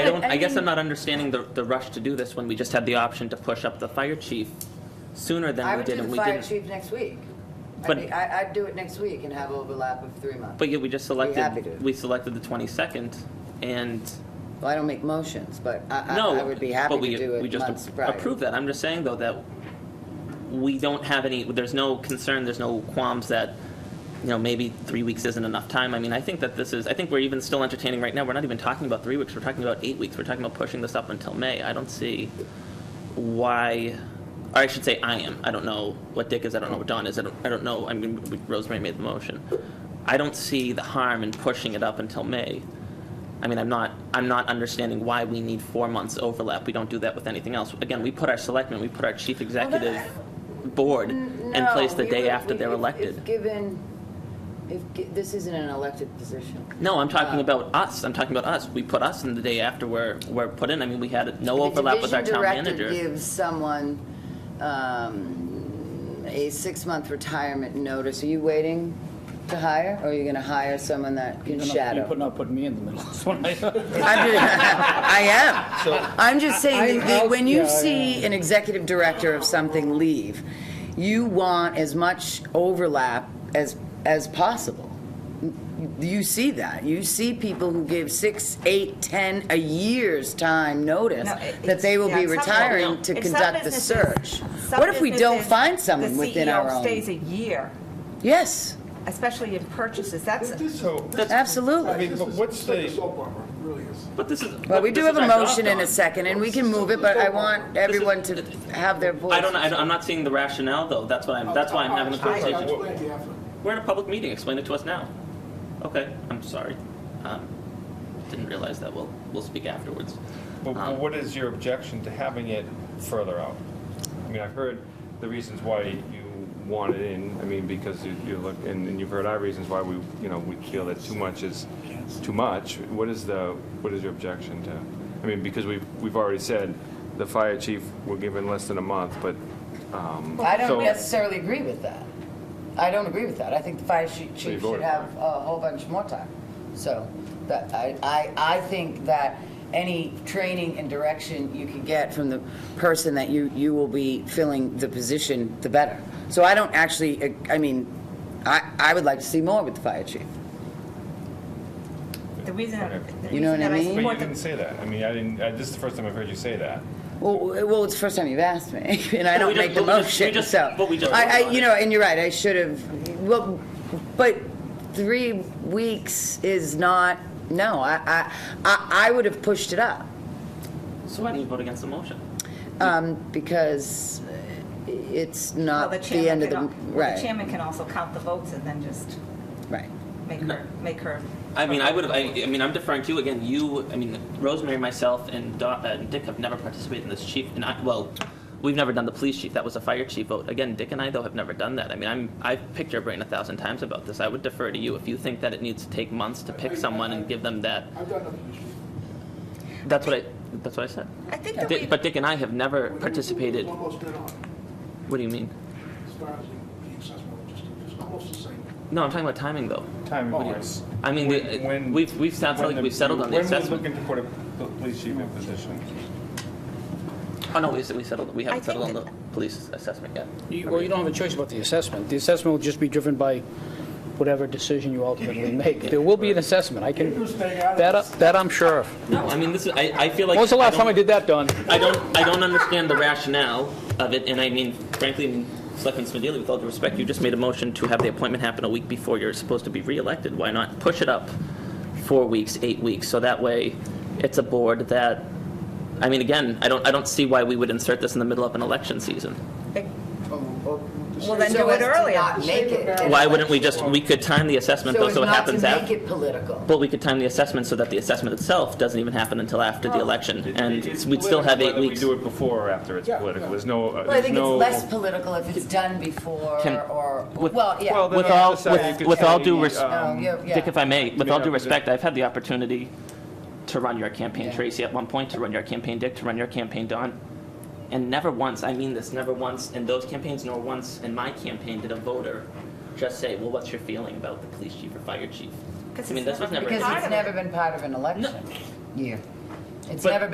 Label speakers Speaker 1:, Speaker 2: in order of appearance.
Speaker 1: don't, I guess
Speaker 2: think-
Speaker 1: I'm not understanding the, the rush to do this when we just had the option to push up the fire chief sooner
Speaker 3: I
Speaker 1: than we
Speaker 3: would
Speaker 1: did
Speaker 3: do
Speaker 1: and
Speaker 3: the
Speaker 1: we
Speaker 3: fire
Speaker 1: didn't.
Speaker 3: chief next week. I'd
Speaker 1: But-
Speaker 3: be- I- I'd do it next week and have overlap of three months.
Speaker 1: But yet we just
Speaker 3: happy to.
Speaker 1: selected, we selected the twenty-second and,
Speaker 3: Well, I don't make motions, but I-
Speaker 1: no.
Speaker 3: I I would be happy
Speaker 1: but
Speaker 3: to
Speaker 1: we-
Speaker 3: do
Speaker 1: We
Speaker 3: it months
Speaker 1: just
Speaker 3: prior.
Speaker 1: approved that. I'm just saying though that we don't have any, there's no concern, there's no qualms that, you know, maybe three weeks isn't enough time. I mean, I think that this is, I think we're even still entertaining right now. We're not even talking about three weeks, we're talking about eight weeks. We're talking about pushing this up until May. I don't see why, or I should say I am. I don't know what Dick is, I don't know what Don is, I don't, I don't know. I mean, Rosemary made the motion. I don't see the harm in pushing it up until May. I mean, I'm not, I'm not understanding why we need four months overlap. We don't do that with anything else. Again, we put our selectmen, we put our chief executive board
Speaker 3: N-
Speaker 1: in place the
Speaker 3: Mm, no,
Speaker 1: day
Speaker 3: we-
Speaker 1: after
Speaker 3: we-
Speaker 1: they're
Speaker 3: if- If
Speaker 1: elected.
Speaker 3: given, if, gi- this isn't an elected position.
Speaker 1: No, I'm talking
Speaker 3: Uh,
Speaker 1: about us. I'm talking about us. We put us in the day after we're, we're put in. I mean, we had no overlap with our town
Speaker 3: The division director
Speaker 1: manager.
Speaker 3: gives someone um, a six-month retirement notice. Are you waiting to hire, or are you going to hire someone that can
Speaker 4: You're not-
Speaker 3: shadow?
Speaker 4: You're put- not putting me in the middle of this one. I-
Speaker 3: I'm just, I am.
Speaker 4: So-
Speaker 3: I'm just saying,
Speaker 4: I-
Speaker 3: that the-
Speaker 4: I'll-
Speaker 3: when you
Speaker 4: yeah,
Speaker 3: see an executive director of something leave, you want as much overlap as, as possible. You see that. You see people who give six, eight, ten, a year's time notice
Speaker 5: No, it-
Speaker 3: that they will
Speaker 5: yeah,
Speaker 3: be
Speaker 5: some-
Speaker 3: retiring to
Speaker 5: In some
Speaker 3: conduct the
Speaker 5: businesses-
Speaker 3: search.
Speaker 5: some
Speaker 3: What if we don't
Speaker 5: businesses,
Speaker 3: find someone within our
Speaker 5: The CEO stays
Speaker 3: own?
Speaker 5: a year,
Speaker 3: Yes,
Speaker 5: especially in purchases. That's,
Speaker 6: So, I
Speaker 3: absolutely.
Speaker 6: mean, but what's
Speaker 7: Like a
Speaker 6: the,
Speaker 7: soap opera, it really is.
Speaker 1: But this is.
Speaker 3: Well, we
Speaker 1: but
Speaker 3: do
Speaker 1: this
Speaker 3: have
Speaker 1: is
Speaker 3: a
Speaker 1: our job,
Speaker 3: motion in a
Speaker 1: Dawn.
Speaker 3: second, and we can move it, but I want everyone to have their voice.
Speaker 1: I don't, know. I don't- I'm not seeing the rationale though. That's why I'm, that's why I'm having a
Speaker 7: I'll- I'll
Speaker 1: conversation.
Speaker 7: explain to you after.
Speaker 1: We're in a public meeting, explain it to us now. Okay, I'm sorry. Um, Didn't realize that, we'll, we'll speak afterwards.
Speaker 6: but- but what is your objection to having it further out? I mean, I've heard the reasons why you want it in, I mean, because you, you look, and and you've heard our reasons why we, you know, we feel that too much is too much. What is the, what is your objection to? I mean, because we've, we've already said, the fire chief, we're given less than a month, but, um.
Speaker 3: I don't
Speaker 6: so-
Speaker 3: necessarily agree with that. I don't agree with that. I think the fire chi-
Speaker 6: you
Speaker 3: chief should
Speaker 6: voted
Speaker 3: have
Speaker 6: for
Speaker 3: a whole bunch more time. So, that, I, I, I think that any training and direction you can get from the person that you, you will be filling the position, the better. So I don't actually, I mean, I, I would like to see more with the fire chief.
Speaker 5: the reason, the
Speaker 3: You know
Speaker 5: reason
Speaker 3: what I
Speaker 5: that
Speaker 3: mean?
Speaker 5: I
Speaker 6: But you
Speaker 5: support
Speaker 6: didn't
Speaker 5: the,
Speaker 6: say that. I mean, I didn't, I- this is the first time I've heard you say that.
Speaker 3: Well, w- well, it's the first time you've asked me, and I
Speaker 1: No, we
Speaker 3: don't
Speaker 1: just-
Speaker 3: make the
Speaker 1: but we just- we
Speaker 3: motion,
Speaker 1: just-
Speaker 3: so.
Speaker 1: but we just
Speaker 3: I,
Speaker 1: voted
Speaker 3: I,
Speaker 1: on
Speaker 3: you
Speaker 1: it.
Speaker 3: know, and you're right, I should have, well, but three weeks is not, no, I, I, I I would have pushed it up,
Speaker 1: So why did you vote against the motion?
Speaker 3: um, because it's
Speaker 5: well,
Speaker 3: not
Speaker 5: the
Speaker 3: the end
Speaker 5: chairman
Speaker 3: of
Speaker 5: can,
Speaker 3: the,
Speaker 5: al- well, the
Speaker 3: right,
Speaker 5: chairman can also count the votes and then just
Speaker 3: right.
Speaker 5: make her, make her.
Speaker 1: I mean, I would, I, I mean, I'm deferring to you again, you, I mean, Rosemary, myself, and Don, uh, and Dick have never participated in this chief, and I, well, we've never done the police chief, that was a fire chief vote. Again, Dick and I though have never done that. I mean, I'm, I've picked your brain a thousand times about this. I would defer to you if you think that it needs to take months to pick someone and give them that.
Speaker 7: I've done nothing.
Speaker 1: That's what I, that's what I said.
Speaker 5: I think that we,
Speaker 1: Dick- But Dick and I have never participated.
Speaker 7: Almost dead on,
Speaker 1: What do you mean?
Speaker 7: as far as the- the accessible logistics, it's almost the same.
Speaker 1: No, I'm talking about timing though.
Speaker 4: Oh,
Speaker 6: Time
Speaker 1: What do you-
Speaker 6: wise.
Speaker 1: I mean,
Speaker 6: When-
Speaker 1: the-
Speaker 6: when-
Speaker 1: we've- we've sounds
Speaker 6: when
Speaker 1: like
Speaker 6: the-
Speaker 1: we've settled on the assessment.
Speaker 6: When we're looking to put a p- police chief in position.
Speaker 1: Oh, no, we, we settled, we haven't
Speaker 5: I
Speaker 1: settled on
Speaker 5: think
Speaker 1: the police assessment yet.
Speaker 4: You- Well, you don't have a choice about the assessment. The assessment will just be driven by whatever decision you ultimately make. There will be an assessment, I can, that, I- that I'm sure of.
Speaker 1: No, I mean, this is, I, I feel like.
Speaker 4: When was the last time I
Speaker 1: don't-
Speaker 4: did that, Don?
Speaker 1: I don't, I don't understand the rationale of it, and I mean, frankly, Selectman Smedili, with all due respect, you just made a motion to have the appointment happen a week before you're supposed to be reelected. Why not push it up four weeks, eight weeks, so that way it's a board that, I mean, again, I don't, I don't see why we would insert this in the middle of an election season.
Speaker 5: well, then do it earlier.
Speaker 1: Why wouldn't we just, we could time the assessment though, so it happens
Speaker 3: So as not to
Speaker 1: after.
Speaker 3: make it political.
Speaker 1: But we could time the assessment so that the assessment itself doesn't even happen until after the election, and
Speaker 6: It's
Speaker 1: we'd still
Speaker 6: political
Speaker 1: have eight
Speaker 6: whether
Speaker 1: weeks.
Speaker 6: we do it before or after it's political. There's no, uh,
Speaker 3: Well, I
Speaker 6: there's
Speaker 3: think it's
Speaker 6: no.
Speaker 3: less political if it's done before,
Speaker 1: Can-
Speaker 3: or,
Speaker 1: with-
Speaker 3: well, yeah.
Speaker 6: Well, then
Speaker 1: With
Speaker 6: on the
Speaker 1: all-
Speaker 6: other side,
Speaker 1: with-
Speaker 6: you could
Speaker 1: with
Speaker 6: say,
Speaker 1: all due res-
Speaker 6: um,
Speaker 3: No, yeah, yeah.
Speaker 1: Dick, if I may, with
Speaker 6: Yeah,
Speaker 1: all due
Speaker 6: yeah.
Speaker 1: respect, I've had the opportunity to run your campaign,
Speaker 3: Yeah.
Speaker 1: Tracy, at one point, to run your campaign, Dick, to run your campaign, Don. And never once, I mean this, never once in those campaigns, nor once in my campaign, did a voter just say, well, what's your feeling about the police chief or fire chief? I mean, this was never.
Speaker 3: Because
Speaker 1: an
Speaker 3: it's never been part of an election year. It's
Speaker 1: But-
Speaker 3: never